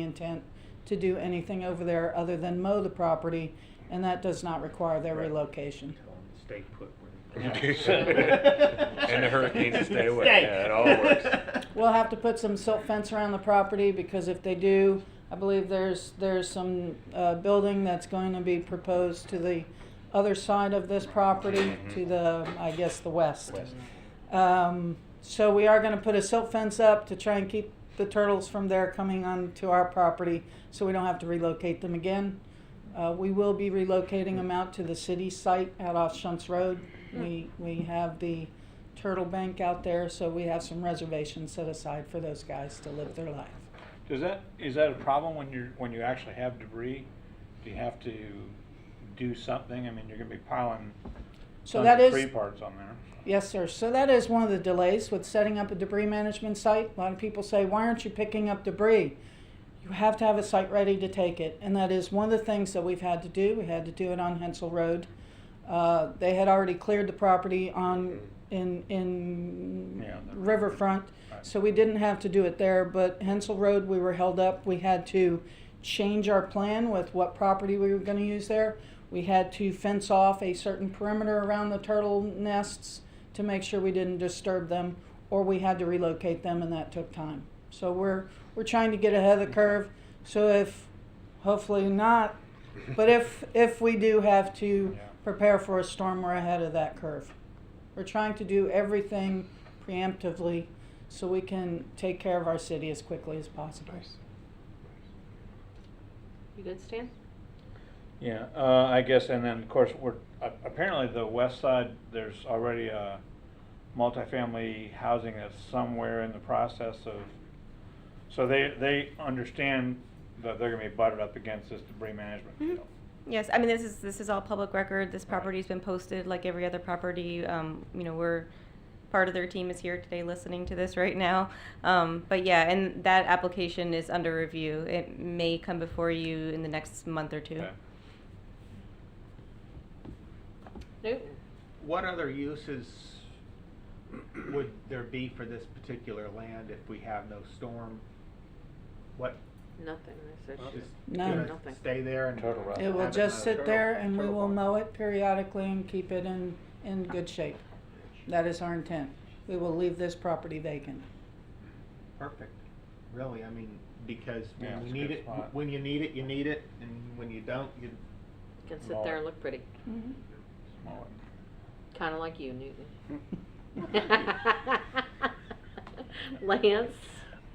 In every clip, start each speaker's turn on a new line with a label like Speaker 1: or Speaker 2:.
Speaker 1: intent to do anything over there other than mow the property, and that does not require their
Speaker 2: Right.
Speaker 1: relocation.
Speaker 2: Stay put where
Speaker 3: Yeah.
Speaker 2: they
Speaker 3: And the hurricanes stay away. Yeah, it all works.
Speaker 1: We'll have to put some silt fence around the property, because if they do, I believe there's, there's some, uh, building that's going to be proposed to the other side of this property, to the, I guess, the west. Um, so we are gonna put a silt fence up to try and keep the turtles from there coming onto our property, so we don't have to relocate them again. Uh, we will be relocating them out to the city site out off Shunts Road. We, we have the turtle bank out there, so we have some reservations set aside for those guys to live their life.
Speaker 4: Does that, is that a problem when you're, when you actually have debris? Do you have to do something? I mean, you're gonna be piling
Speaker 1: So
Speaker 4: tons
Speaker 1: that
Speaker 4: of
Speaker 1: is.
Speaker 4: free parts on there.
Speaker 1: Yes, sir. So that is one of the delays with setting up a debris management site. A lot of people say, why aren't you picking up debris? You have to have a site ready to take it. And that is one of the things that we've had to do. We had to do it on Hensel Road. Uh, they had already cleared the property on, in, in
Speaker 4: Yeah, the-
Speaker 1: Riverfront.
Speaker 4: Right.
Speaker 1: So we didn't have to do it there, but Hensel Road, we were held up. We had to change our plan with what property we were gonna use there. We had to fence off a certain perimeter around the turtle nests to make sure we didn't disturb them, or we had to relocate them, and that took time. So we're, we're trying to get ahead of the curve, so if, hopefully not, but if, if we do have to
Speaker 4: Yeah.
Speaker 1: prepare for a storm, we're ahead of that curve. We're trying to do everything preemptively so we can take care of our city as quickly as possible.
Speaker 5: You good, Stan?
Speaker 4: Yeah, uh, I guess, and then, of course, we're, a- apparently the west side, there's already a multifamily housing that's somewhere in the process of, so they, they understand that they're gonna be butted up against this debris management
Speaker 1: Mm-hmm.
Speaker 5: Mhm.
Speaker 4: deal.
Speaker 5: Yes, I mean, this is, this is all public record. This
Speaker 4: Right.
Speaker 5: property's been posted like every other property. Um, you know, we're, part of their team is here today listening to this right now. Um, but yeah, and that application is under review. It may come before you in the next month or two.
Speaker 4: Okay.
Speaker 5: Nope.
Speaker 2: What other uses would there be for this particular land if we have no storm? What,
Speaker 6: Nothing, I said.
Speaker 2: just
Speaker 1: None.
Speaker 2: gonna
Speaker 6: Nothing.
Speaker 2: stay there and?
Speaker 4: Turtle rock.
Speaker 1: It will
Speaker 2: have
Speaker 1: just
Speaker 2: another
Speaker 1: sit
Speaker 2: turtle-
Speaker 1: there and we
Speaker 2: turtle
Speaker 1: will
Speaker 2: pond.
Speaker 1: mow it periodically and keep it in, in good shape. That is our intent. We will leave this property vacant.
Speaker 2: Perfect, really, I mean, because
Speaker 4: Yeah,
Speaker 2: when
Speaker 4: it's
Speaker 2: you
Speaker 4: a
Speaker 2: need
Speaker 4: good
Speaker 2: it,
Speaker 4: spot.
Speaker 2: when you need it, you need it, and when you don't, you,
Speaker 6: Can sit there and look pretty,
Speaker 5: Mm-hmm.
Speaker 4: Small one.
Speaker 6: kinda like you, Newton. Lance?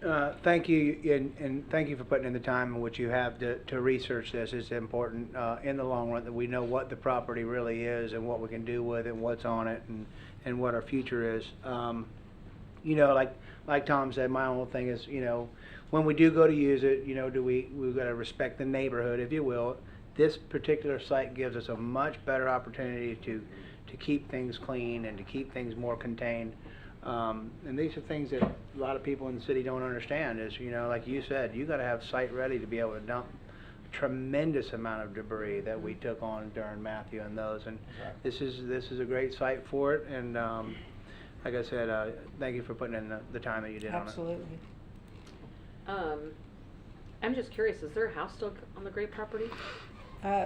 Speaker 7: Uh, Thank you, and, and thank you for putting in the time in which you have to, to research this. It's important, uh, in the long run, that we know what the property really is and what we can do with it, and what's on it, and, and what our future is. Um, you know, like, like Tom said, my only thing is, you know, when we do go to use it, you know, do we, we've gotta respect the neighborhood, if you will. This particular site gives us a much better opportunity to, to keep things clean and to keep things more contained. Um, and these are things that a lot of people in the city don't understand is, you know, like you said, you gotta have site ready to be able to dump tremendous amount of debris that we took on during Matthew and those, and
Speaker 4: Right.
Speaker 7: this is, this is a great site for it, and, um, like I said, uh, thank you for putting in the, the time that you did on it.
Speaker 1: Absolutely.
Speaker 6: Um, I'm just curious, is there a house still on the Gray property?
Speaker 1: Uh,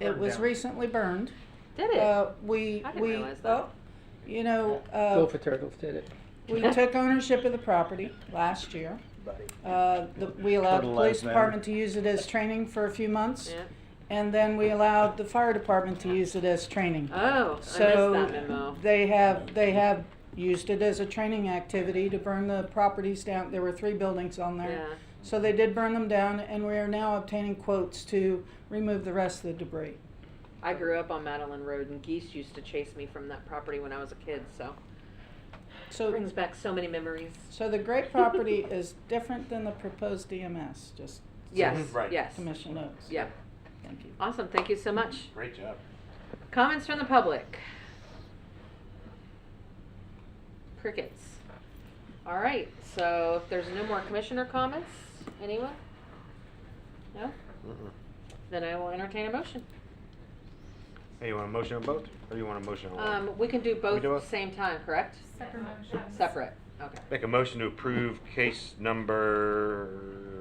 Speaker 1: it
Speaker 2: Burned
Speaker 1: was
Speaker 2: down.
Speaker 1: recently burned.
Speaker 6: Did it?
Speaker 1: Uh, we,
Speaker 6: I didn't
Speaker 1: we,
Speaker 6: realize that.
Speaker 1: oh, you know, uh.
Speaker 8: Go for turtles, did it?
Speaker 1: We took ownership of the property last year. Uh, the, we allowed the
Speaker 4: Turtle
Speaker 1: police
Speaker 4: lives matter.
Speaker 1: department to use it as training for a few months,
Speaker 6: Yeah.
Speaker 1: and then we allowed the fire department to use it as training.
Speaker 6: Oh, I missed
Speaker 1: So
Speaker 6: that memo.
Speaker 1: they have, they have used it as a training activity to burn the properties down. There were three buildings on there.
Speaker 6: Yeah.
Speaker 1: So they did burn them down, and we are now obtaining quotes to remove the rest of the debris.
Speaker 6: I grew up on Madeline Road and geese used to chase me from that property when I was a kid, so.
Speaker 1: So
Speaker 6: Brings back so many memories.
Speaker 1: So the great property is different than the proposed DMS, just
Speaker 6: Yes,
Speaker 3: Right.
Speaker 6: yes,
Speaker 1: commission notes.
Speaker 6: yeah.
Speaker 1: Thank you.
Speaker 6: Awesome, thank you so much.
Speaker 3: Great job.
Speaker 6: Comments from the public? Crickets. All right, so if there's no more commissioner comments, anyone? No? Then I will entertain a motion.
Speaker 3: Hey, you want a motion on both, or you want a motion on one?
Speaker 6: Um, we can do both at
Speaker 3: do
Speaker 6: the
Speaker 3: both?
Speaker 6: same time, correct?
Speaker 9: Separate motions.
Speaker 6: Separate, okay.
Speaker 3: Make a motion to approve case number
Speaker 2: oh,